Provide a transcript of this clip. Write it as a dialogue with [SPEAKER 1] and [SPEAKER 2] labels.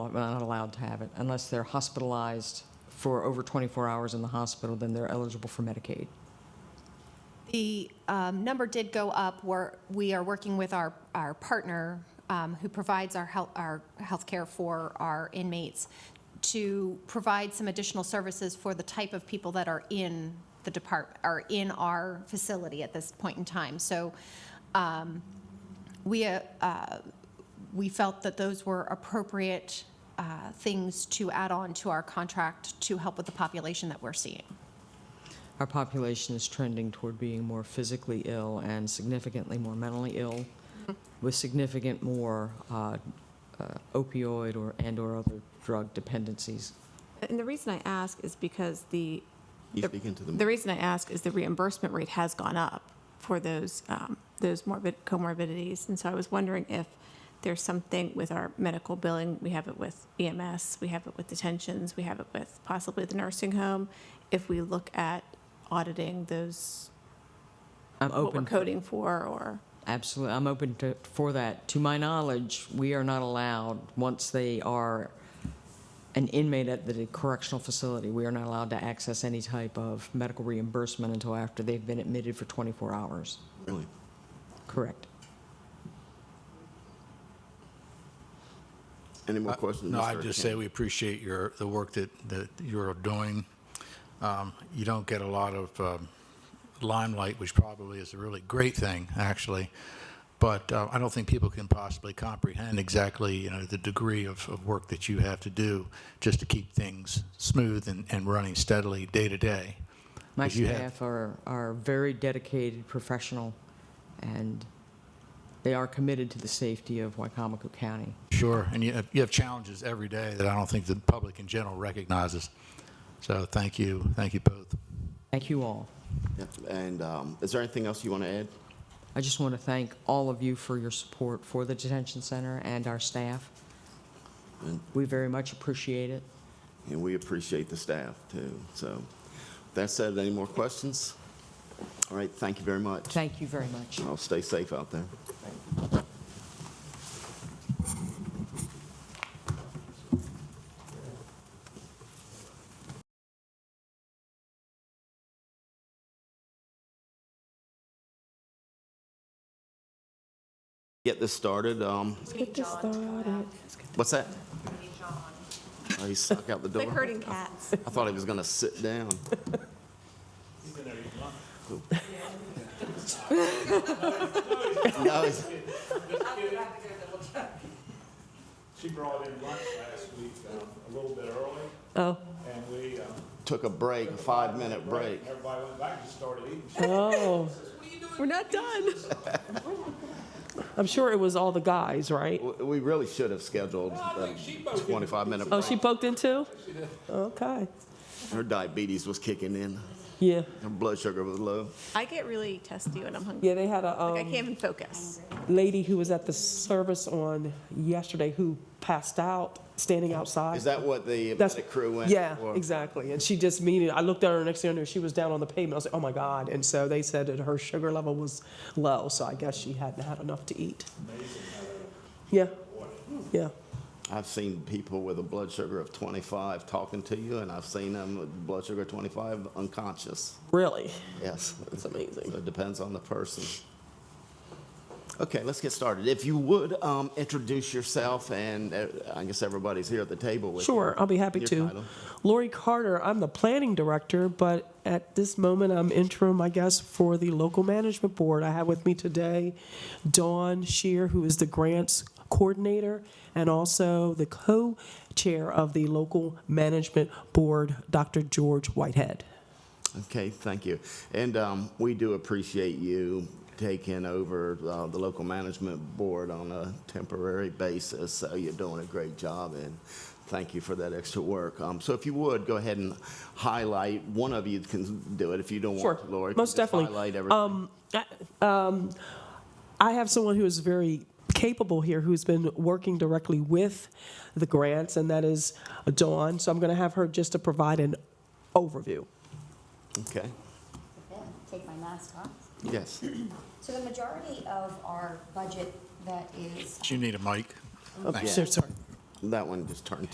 [SPEAKER 1] not, not allowed to have it unless they're hospitalized for over 24 hours in the hospital, then they're eligible for Medicaid.
[SPEAKER 2] The um, number did go up. We're, we are working with our, our partner um, who provides our health, our healthcare for our inmates to provide some additional services for the type of people that are in the depart, are in our facility at this point in time. So um, we, uh, uh, we felt that those were appropriate uh, things to add on to our contract to help with the population that we're seeing.
[SPEAKER 1] Our population is trending toward being more physically ill and significantly more mentally ill, with significant more uh, uh, opioid or, and/or other drug dependencies.
[SPEAKER 3] And the reason I ask is because the,
[SPEAKER 4] You
[SPEAKER 3] the-
[SPEAKER 4] speak into the,
[SPEAKER 3] the reason I ask is the reimbursement rate has gone up for those, um, those morbid, comorbidities. And so I was wondering if there's something with our medical billing, we have it with EMS, we have it with detentions, we have it with possibly the nursing home. If we look at auditing those,
[SPEAKER 1] I'm
[SPEAKER 3] what we're
[SPEAKER 1] open,
[SPEAKER 3] coding for, or,
[SPEAKER 1] absolutely, I'm open to, for that. To my knowledge, we are not allowed, once they are an inmate at the correctional facility, we are not allowed to access any type of medical reimbursement until after they've been admitted for 24 hours.
[SPEAKER 4] really.
[SPEAKER 1] Correct.
[SPEAKER 4] Any more questions?
[SPEAKER 5] Uh, No,
[SPEAKER 4] Mr.
[SPEAKER 5] I just say
[SPEAKER 4] Arcand?
[SPEAKER 5] we appreciate your, the work that, that you're doing. Um, You don't get a lot of um, limelight, which probably is a really great thing, actually. But uh, I don't think people can possibly comprehend exactly, you know, the degree of, of work that you have to do just to keep things smooth and, and running steadily day to day.
[SPEAKER 1] My
[SPEAKER 5] 'Cause you have-
[SPEAKER 1] staff are, are very dedicated, professional, and they are committed to the safety of Wycomico County.
[SPEAKER 5] Sure, and you have, you have challenges every day that I don't think the public in general recognizes. So thank you, thank you both.
[SPEAKER 1] Thank you all.
[SPEAKER 4] Yep, And um, is there anything else you want to add?
[SPEAKER 1] I just want to thank all of you for your support for the detention center and our staff.
[SPEAKER 4] And-
[SPEAKER 1] We very much appreciate it.
[SPEAKER 4] And we appreciate the staff, too. So that said, any more questions? All right, thank you very much.
[SPEAKER 1] Thank you very much.
[SPEAKER 4] I'll stay safe out there. Get this started. um,
[SPEAKER 3] get this started.
[SPEAKER 4] What's that? Oh, he stuck out the door.
[SPEAKER 3] Like herding cats.
[SPEAKER 4] I thought he was going to sit down. No, he's-
[SPEAKER 6] She brought in lunch last week, um, a little bit early. And we, um,
[SPEAKER 4] took a break, a five-minute break.
[SPEAKER 6] everybody went back and started eating.
[SPEAKER 7] Oh.
[SPEAKER 3] We're not done.
[SPEAKER 7] I'm sure it was all the guys, right?
[SPEAKER 4] W- We really should have scheduled a 25-minute
[SPEAKER 7] Oh, she
[SPEAKER 4] break.
[SPEAKER 7] poked in too? Okay.
[SPEAKER 4] Her diabetes was kicking in.
[SPEAKER 7] Yeah.
[SPEAKER 4] Her blood sugar was low.
[SPEAKER 3] I get really testy when I'm hungry.
[SPEAKER 7] Yeah, they had a
[SPEAKER 3] Like, I
[SPEAKER 7] um,
[SPEAKER 3] can't even focus.
[SPEAKER 7] lady who was at the service on yesterday who passed out standing outside.
[SPEAKER 4] Is that what the
[SPEAKER 7] That's-
[SPEAKER 4] medic crew went?
[SPEAKER 7] Yeah,
[SPEAKER 4] for?
[SPEAKER 7] exactly. And she just mean it. I looked at her next thing I knew she was down on the pavement. I was like, oh my God. And so they said that her sugar level was low. So I guess she hadn't had enough to eat. Yeah. Yeah.
[SPEAKER 4] I've seen people with a blood sugar of 25 talking to you, and I've seen them with blood sugar 25 unconscious.
[SPEAKER 7] Really?
[SPEAKER 4] Yes.
[SPEAKER 7] That's amazing.
[SPEAKER 4] So it depends on the person. Okay, let's get started. If you would, um, introduce yourself, and uh, I guess everybody's here at the table with you.
[SPEAKER 7] Sure, I'll be happy
[SPEAKER 4] Your
[SPEAKER 7] to.
[SPEAKER 4] title.
[SPEAKER 7] Lori Carter, I'm the planning director, but at this moment, I'm interim, I guess, for the local management board. I have with me today Dawn Shear, who is the grants coordinator, and also the co-chair of the local management board, Dr. George Whitehead.
[SPEAKER 4] Okay, thank you. And um, we do appreciate you taking over uh, the local management board on a temporary basis. So you're doing a great job, and thank you for that extra work. Um, So if you would, go ahead and highlight, one of you can do it if you don't
[SPEAKER 7] Sure,
[SPEAKER 4] want to, Lori.
[SPEAKER 7] most
[SPEAKER 4] just
[SPEAKER 7] definitely. Um,
[SPEAKER 4] Highlight everything.
[SPEAKER 7] I have someone who is very capable here who's been working directly with the grants, and that is Dawn. So I'm going to have her just to provide an overview.
[SPEAKER 4] Okay,
[SPEAKER 8] Take my mask off.
[SPEAKER 4] yes.
[SPEAKER 8] So the majority of our budget that is,
[SPEAKER 5] Do you need a mic? Thanks.
[SPEAKER 7] Sure, Sorry.
[SPEAKER 4] That one just turned